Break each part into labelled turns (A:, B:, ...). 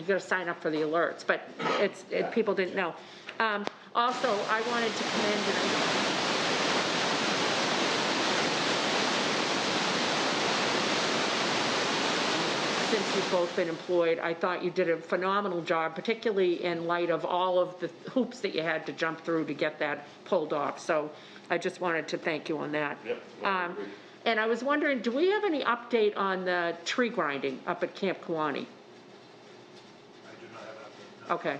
A: you gotta sign up for the alerts, but it's, it, people didn't know. Um, also, I wanted to commend, and I since you've both been employed, I thought you did a phenomenal job, particularly in light of all of the hoops that you had to jump through to get that pulled off. So I just wanted to thank you on that.
B: Yep, no, I
A: Um,
B: agree.
A: and I was wondering, do we have any update on the tree grinding up at Camp Kawani?
C: I do not have that.
A: Okay.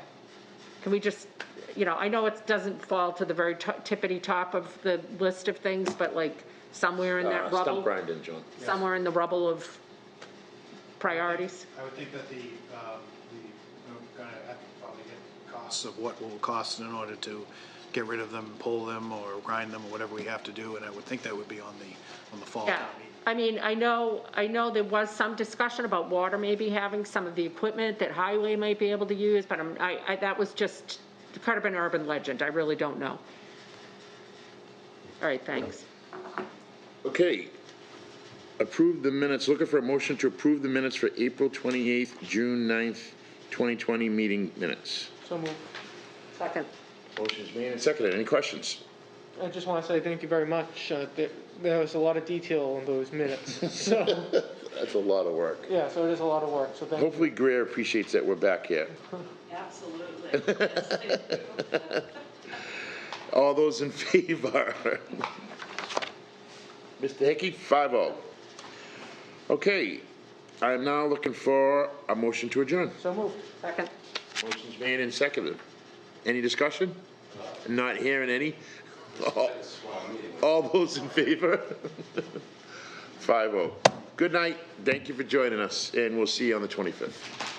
A: Can we just, you know, I know it doesn't fall to the very to- tippity top of the list of things, but like somewhere in that
D: Uh,
A: rubble?
D: Stump grinding, John.
A: Somewhere in the rubble of priorities?
C: I would think that the, um, the, we're gonna have to probably get costs of what will cost in order to get rid of them, pull them, or grind them, or whatever we have to do, and I would think that would be on the, on the fall
A: Yeah,
C: town meeting.
A: I mean, I know, I know there was some discussion about water maybe having some of the equipment that highway might be able to use, but I'm, I, I, that was just, it could have been urban legend, I really don't know. All right, thanks.
B: Okay. Approve the minutes, looking for a motion to approve the minutes for April 28th, June 9th, 2020 meeting minutes.
E: So moved.
A: Second.
B: Motion's made and seconded. Any questions?
E: I just want to say thank you very much. Uh, there, there was a lot of detail in those minutes. So,
B: That's a lot of work.
E: yeah, so it is a lot of work. So thank you.
B: Hopefully Greer appreciates that we're back here.
F: Absolutely. Yes, thank you.
B: All those in favor? Mr. Hickey, five oh. Okay, I'm now looking for a motion to adjourn.
E: So moved.
A: Second.
B: Motion's made and seconded. Any discussion? Not hearing any? All- All those in favor? Five oh. Good night, thank you for joining us, and we'll see you on the twenty-fifth.